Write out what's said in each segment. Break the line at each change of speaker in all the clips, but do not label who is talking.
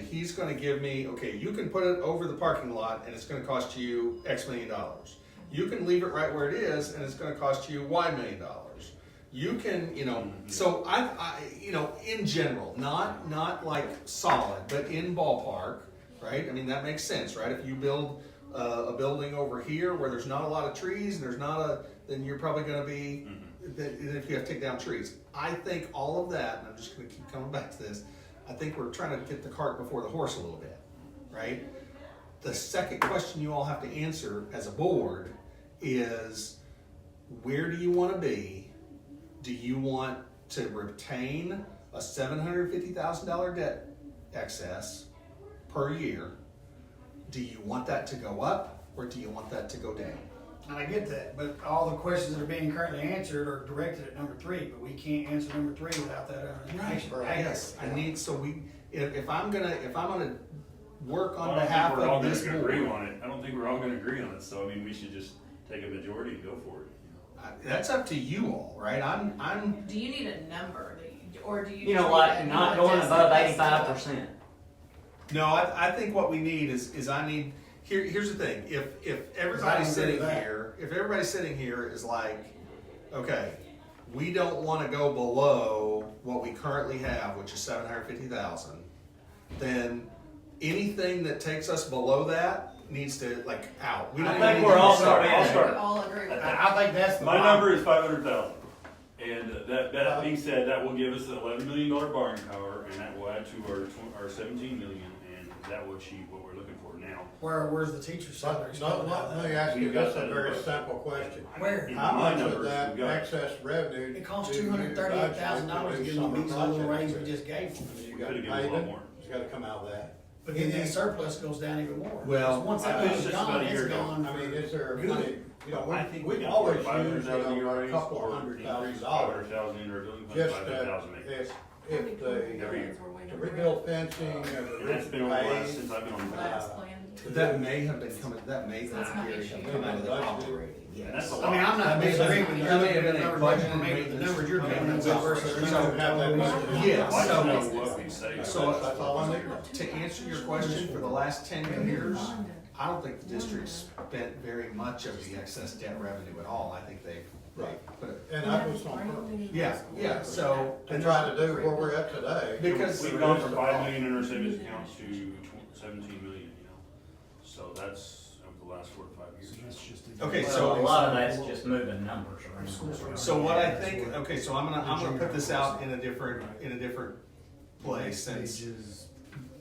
he's gonna give me, okay, you can put it over the parking lot and it's gonna cost you X million dollars. You can leave it right where it is and it's gonna cost you Y million dollars. You can, you know, so I, I, you know, in general, not, not like solid, but in ballpark, right? I mean, that makes sense, right? If you build uh, a building over here where there's not a lot of trees and there's not a, then you're probably gonna be, then then if you have to take down trees. I think all of that, and I'm just gonna keep coming back to this, I think we're trying to get the cart before the horse a little bit, right? The second question you all have to answer as a board is where do you want to be? Do you want to retain a $750,000 debt excess per year? Do you want that to go up or do you want that to go down?
And I get that, but all the questions that are being currently answered are directed at number three, but we can't answer number three without that other information.
Yes, I need, so we, if, if I'm gonna, if I'm gonna work
Well,
on
I don't
behalf
think we're all
of this
gonna agree
board.
on it. I don't think we're all gonna agree on it, so I mean, we should just take a majority and go for it. you
I- That's up to you all, right? I'm, I'm,
Do you need a number, that you- or do you?
You
just need
know, like
a
not
number
going
just
above
in case
eighty-five
someone-
percent.
no, I, I think what we need is, is I need, here, here's the thing, if, if everybody's
agree
sitting
with that.
here, if everybody's sitting here is like, okay, we don't wanna go below what we currently have, which is seven hundred fifty thousand, then anything that takes us below that needs to, like, out. We
I
don't
think
even need
we're
to
all-
start.
I'll
I think
start.
we all agree with that.
I, I think that's the.
know. My
bottom.
number is five hundred thousand. And uh, that, that being said, that will give us an eleven million dollar borrowing power, and that will add to our tw- our seventeen million, and that will achieve what we're looking for now.
Where, where's the teacher's salary?
Let, let, let me ask you
We've got
just
that
a
in
very
the budget.
simple question.
Where?
In
How
my
much of
numbers,
that
we've got-
excess revenue?
It costs
do you
two hundred thirty-eight thousand
budget
dollars
to
to
do
give them these
summer
little raise we
projects
just gave them.
with? You
We
gotta
could've
pay
given them a lot
them.
more.
It's gotta come out of that.
But then that surplus goes down even more.
Well,
Because Once
I
that
think
goes
it's just about
gone,
a year
it's
ago.
gone.
I mean, is there
Good.
money, you know,
I
we,
think
we
can
always
afford $500,000
use, you know,
year
a
raise
couple
or
hundred
increase
thousand
$500,000
dollars.
in our building fund,
Just, uh,
500,000 maybe.
if, if
Every year.
the, to rebuild fencing and the
And that's
roof
been on the last,
pays.
since I've been on the
Uh,
last.
Last plan.
That may have been coming, that may
That's
have
not
been
issue.
come out of the operating.
And that's a
I mean,
lot.
I'm not
That may have
disagreeing
been-
with you.
that may have been a
Numbers
budget
you're making, The
maintenance.
numbers you're coming up with versus the
We
numbers.
don't have that much.
Yeah,
I'd like
so-
to know what we saved.
So-
That's all I need.
To answer your question, for the last ten years, I don't think the district spent very much of the excess debt revenue at all. I think they,
Right.
put it,
And that was on purpose.
yeah, yeah, so.
To try to do where we're at today.
Because-
We've gone from five million in our savings account to tw- seventeen million, you know, so that's over the last four to five years.
Okay,
So a
so,
lot of that's just moving numbers around.
so what I think, okay, so I'm gonna, I'm gonna put this out in a different, in a different place since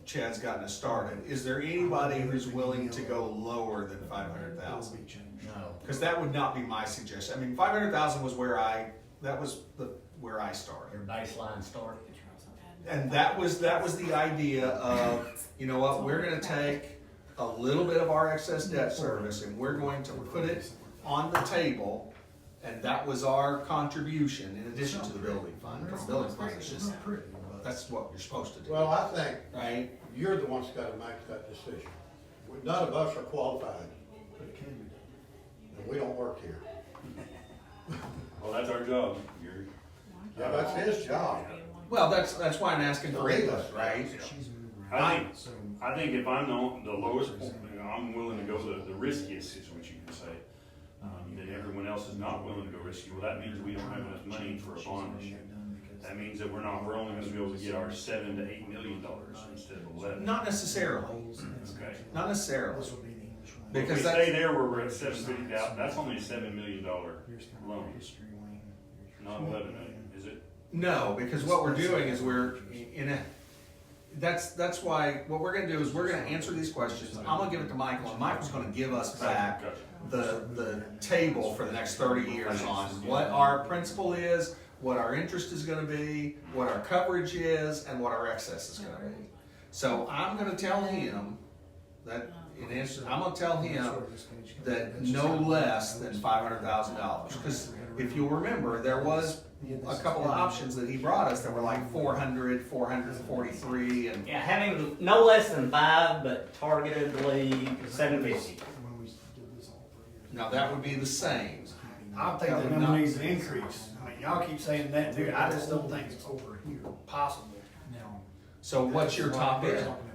Chad's gotten us started. Is there anybody who's willing to go lower than five hundred thousand?
No.
Because that would not be my suggestion. I mean, five hundred thousand was where I that was the where I started,
Your baseline start.
and that was that was the idea of you know what we're going to take a little bit of our excess debt service and we're going to put it on the table, and that was our contribution in addition to the building fund. 'Cause The building fund is just that's what you're supposed to do,
Well, I think
right?
you're the ones that gotta make that decision. We- None of us are qualified, and we don't work here.
Well, that's our job, Gary.
Yeah, that's his job.
Well, that's that's why I'm asking for input, right?
I think, I think if I'm the, the lowest, point, you know, I'm willing to go the, the riskiest, is what you can say. Um, then everyone else is not willing to go risky, well, that means we don't have enough money for a bond issue. That means that we're not, we're only gonna be able to get our seven to eight million dollars instead of eleven.
Not necessarily,
Okay.
not necessarily.
If we
Because
stay
that's-
there where we're at seven fifty thousand, that's only a seven million dollar loan, not eleven eh? million, is it?
No, because what we're doing is we're in a, that's, that's why, what we're gonna do is we're gonna answer these questions. I'm gonna give it to Michael, and Michael's gonna give us back
Gotcha.
the, the table for the next thirty years on what our principal is, what our interest is gonna be, what our coverage is, and what our excess is gonna be. So I'm gonna tell him that, in answer, I'm gonna tell him that no less than five hundred thousand dollars. Cause if you'll remember, there was a couple of options that he brought us that were like 400, 443, and
Yeah, having no less than five, but targetedly seven fifty.
now that would be the same.
I think
That
that
would
number
not-
needs an increase. I mean, y'all keep saying that, dude, I just don't think it's over here, possible.
So what's your top end?